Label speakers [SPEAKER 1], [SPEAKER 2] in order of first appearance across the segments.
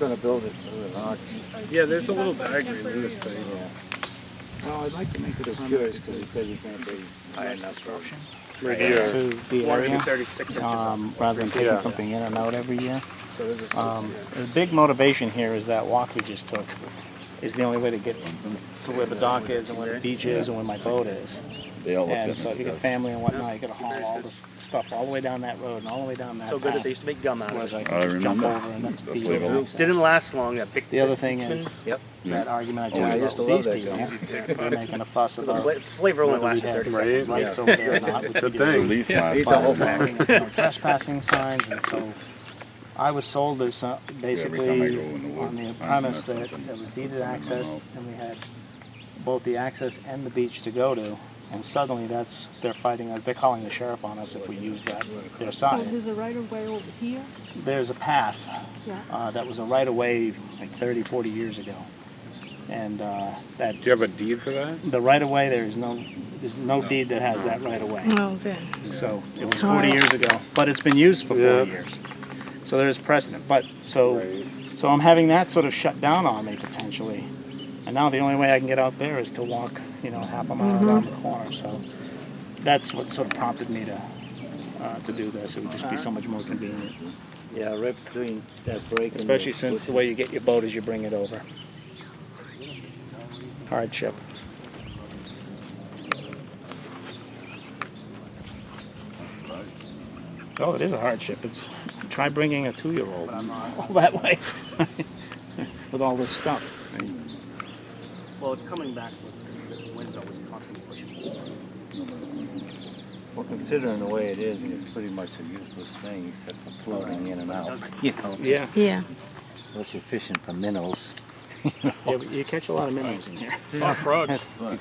[SPEAKER 1] Gonna build it through an auction.
[SPEAKER 2] Yeah, there's a little diagram in this thing.
[SPEAKER 1] Well, I'd like to make it a curious, because he said you can't be high enough structure.
[SPEAKER 2] Right
[SPEAKER 3] to the area,
[SPEAKER 2] 136 inches.
[SPEAKER 3] um, rather than taking something in and out every year.
[SPEAKER 1] So there's a,
[SPEAKER 3] Um, the big motivation here is that walk we just took is the only way to get to where the dock is and where the beach is and where my boat is.
[SPEAKER 4] They all look
[SPEAKER 3] And so
[SPEAKER 4] different.
[SPEAKER 3] if you got family and whatnot, you gotta haul all this stuff all the way down that road and all the way down that
[SPEAKER 2] So good that they
[SPEAKER 3] path.
[SPEAKER 2] used to make gum out of
[SPEAKER 3] Whereas
[SPEAKER 2] it.
[SPEAKER 3] I
[SPEAKER 4] I
[SPEAKER 3] can just jump
[SPEAKER 4] remember.
[SPEAKER 3] over and that's the
[SPEAKER 4] That's way
[SPEAKER 3] easy
[SPEAKER 4] back.
[SPEAKER 3] access.
[SPEAKER 2] Didn't last long, that pic.
[SPEAKER 3] The other thing is,
[SPEAKER 1] Yep.
[SPEAKER 3] that argument I
[SPEAKER 4] yeah.
[SPEAKER 3] just
[SPEAKER 1] used to
[SPEAKER 3] about
[SPEAKER 1] love
[SPEAKER 3] these people,
[SPEAKER 1] that
[SPEAKER 3] they're making a fuss
[SPEAKER 2] The
[SPEAKER 3] about
[SPEAKER 2] fla- flavor only
[SPEAKER 3] whether we
[SPEAKER 2] lasted
[SPEAKER 3] have
[SPEAKER 2] 30
[SPEAKER 3] these
[SPEAKER 2] seconds.
[SPEAKER 3] rights over there or not. Good
[SPEAKER 4] Relief my
[SPEAKER 1] He's a
[SPEAKER 4] file.
[SPEAKER 1] whole
[SPEAKER 3] flagging and no trespassing signs, and so I was sold this, uh,
[SPEAKER 4] time I
[SPEAKER 3] basically,
[SPEAKER 4] go in the
[SPEAKER 3] on the
[SPEAKER 4] woods, I
[SPEAKER 3] premise
[SPEAKER 4] find
[SPEAKER 3] that
[SPEAKER 4] something-
[SPEAKER 3] it was deeded
[SPEAKER 4] something I
[SPEAKER 3] access,
[SPEAKER 4] know.
[SPEAKER 3] and we had both the access and the beach to go to, and suddenly that's, they're fighting, us. they're calling the sheriff on us if we use that, their
[SPEAKER 5] So
[SPEAKER 3] sign.
[SPEAKER 5] there's a right of way over here,
[SPEAKER 3] There's a path
[SPEAKER 5] yeah.
[SPEAKER 3] uh, that was a right of way like 30, 40 years ago. And uh, that
[SPEAKER 6] Do you have a deed for that?
[SPEAKER 3] the right of way, there is no, there's no deed that has that right of way.
[SPEAKER 5] Oh, then.
[SPEAKER 3] So it was 40 years ago, but it's been used for 40 years. So there is precedent. But so, so I'm having that sort of shut down on me potentially. And now the only way I can get out there is to walk, you know, half a mile around the corner. So that's what sort of prompted me to uh, to do this. It would just be so much more convenient,
[SPEAKER 1] yeah, right between that break and.
[SPEAKER 3] especially since the way you get your boat is you bring it over. Hardship. Oh, it is a hardship. It's try bringing a two-year-old all that way with all this stuff.
[SPEAKER 2] Well, it's coming back with the wind always constantly pushing this way.
[SPEAKER 1] Well, considering the way it is, and it's pretty much a useless thing except for floating in and out, you know,
[SPEAKER 3] Yeah,
[SPEAKER 5] Yeah.
[SPEAKER 1] unless you're fishing for minnows.
[SPEAKER 3] yeah but you catch a lot of minnows in here.
[SPEAKER 6] A lot of frogs.
[SPEAKER 3] A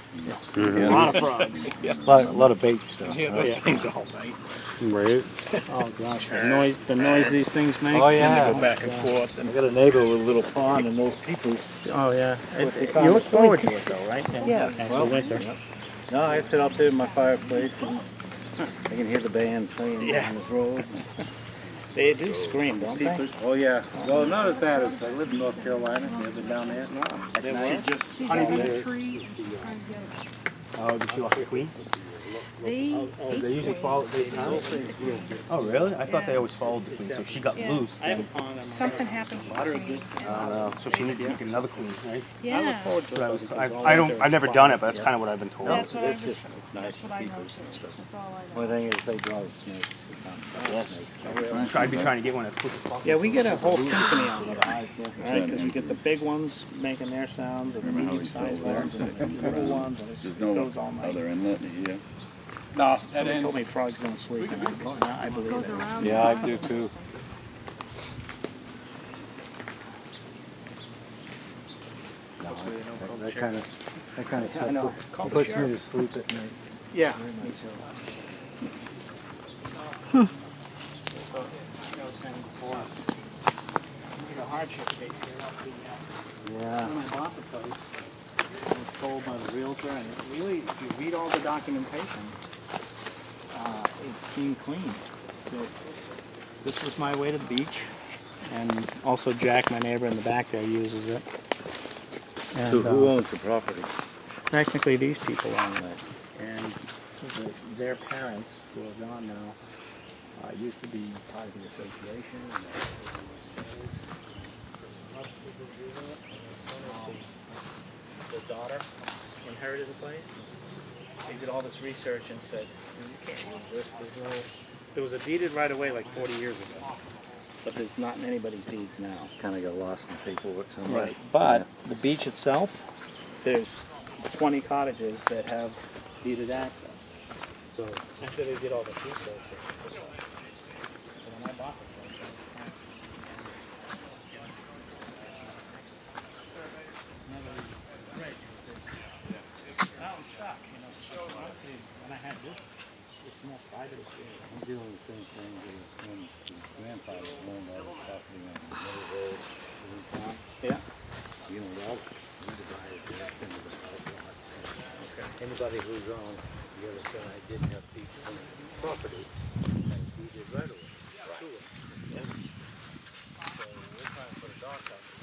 [SPEAKER 3] lot of frogs.
[SPEAKER 1] A lot, a lot of bait stuff.
[SPEAKER 3] Yeah,
[SPEAKER 6] Oh,
[SPEAKER 3] those things all night.
[SPEAKER 6] Right.
[SPEAKER 3] Oh gosh, the noise, the noise these things make.
[SPEAKER 1] Oh, yeah.
[SPEAKER 2] Go back and forth.
[SPEAKER 1] I got a neighbor with a little pond and those people.
[SPEAKER 3] Oh yeah. It-
[SPEAKER 1] They
[SPEAKER 3] it-
[SPEAKER 1] found
[SPEAKER 3] you
[SPEAKER 1] a
[SPEAKER 3] look forward to it though, right?
[SPEAKER 1] Yeah,
[SPEAKER 3] After
[SPEAKER 1] well,
[SPEAKER 3] winter.
[SPEAKER 1] No, I sit out there in my fireplace and I can hear the band playing
[SPEAKER 3] Yeah.
[SPEAKER 1] on the road.
[SPEAKER 3] They do scream, don't they?
[SPEAKER 1] Oh, yeah.
[SPEAKER 6] Well, not as bad as I live in North Carolina. Have you ever down there?
[SPEAKER 3] They were.
[SPEAKER 5] She's
[SPEAKER 3] Honey,
[SPEAKER 5] got
[SPEAKER 3] they-
[SPEAKER 5] a tree.
[SPEAKER 3] Oh, did she walk the queen?
[SPEAKER 5] They.
[SPEAKER 6] They usually follow. They, oh, really? I thought they always followed the queen. So if she got
[SPEAKER 5] Yeah.
[SPEAKER 6] loose.
[SPEAKER 3] I have a pond. on my-
[SPEAKER 5] Something happened.
[SPEAKER 2] uh,
[SPEAKER 6] So she needs to make another queen, right?
[SPEAKER 5] Yeah.
[SPEAKER 6] But I, was, I, I don't. I've never done it, but that's kind of what I've been told.
[SPEAKER 5] That's what I
[SPEAKER 1] It's
[SPEAKER 5] was,
[SPEAKER 1] just, it's nice.
[SPEAKER 5] that's what I noticed. That's all I
[SPEAKER 1] Only
[SPEAKER 5] know.
[SPEAKER 1] thing is they draw the snakes. It's not- it's not snakes.
[SPEAKER 6] I'd be trying to get one as quick as possible.
[SPEAKER 3] Yeah, we get a whole symphony out of it, right? Because we get the big ones making their sounds, and the
[SPEAKER 4] Remember how we
[SPEAKER 3] medium-sized
[SPEAKER 4] sold
[SPEAKER 3] ones, and the little ones, and it
[SPEAKER 4] There's
[SPEAKER 3] just
[SPEAKER 4] no
[SPEAKER 3] goes all night.
[SPEAKER 4] other inlet here.
[SPEAKER 6] No, that
[SPEAKER 3] Somebody
[SPEAKER 6] ends.
[SPEAKER 3] told me frogs don't sleep, and I, I believe
[SPEAKER 5] Goes
[SPEAKER 3] it.
[SPEAKER 5] around.
[SPEAKER 1] Yeah, I do too. No, that- That kind of, that kind of
[SPEAKER 3] I know.
[SPEAKER 1] stuff put- puts me to sleep at night.
[SPEAKER 3] Yeah.
[SPEAKER 1] very much so.
[SPEAKER 3] So, I was saying before, you need a hardship case here, not being out.
[SPEAKER 1] Yeah.
[SPEAKER 3] When I bought the place, I was told by the realtor, and it really, if you read all the documentation, uh, it seemed clean. That This was my way to the beach, and also Jack, my neighbor in the back there, uses it. And,
[SPEAKER 1] So who
[SPEAKER 3] uh,
[SPEAKER 1] owns the property?
[SPEAKER 3] technically, these people own it, and the- their parents, who are gone now, uh, used to be part of the association. and they-
[SPEAKER 2] Um, The daughter inherited the place.
[SPEAKER 3] they did all this research and said, you can't use this, there's no, there was a deeded right away like forty years ago. But there's not in anybody's deeds now.
[SPEAKER 1] Kind of got lost in paperwork somewhere.
[SPEAKER 3] Right, but the beach itself, there's twenty cottages that have deeded access. So after they did all the research. it was just like- So when I bought the place, I had access. Never great, because they- Now I'm stuck, you know, because honestly, when I had this, it's more private.
[SPEAKER 1] I'm dealing with the same thing with when his grandfather owned all the property on the middle road in town.
[SPEAKER 3] Yeah.
[SPEAKER 1] You know, all, you divided it up into the house lots. Anybody who's on the other side didn't have people on the property, they deeded right away to us. So we're trying to put a dog knock up.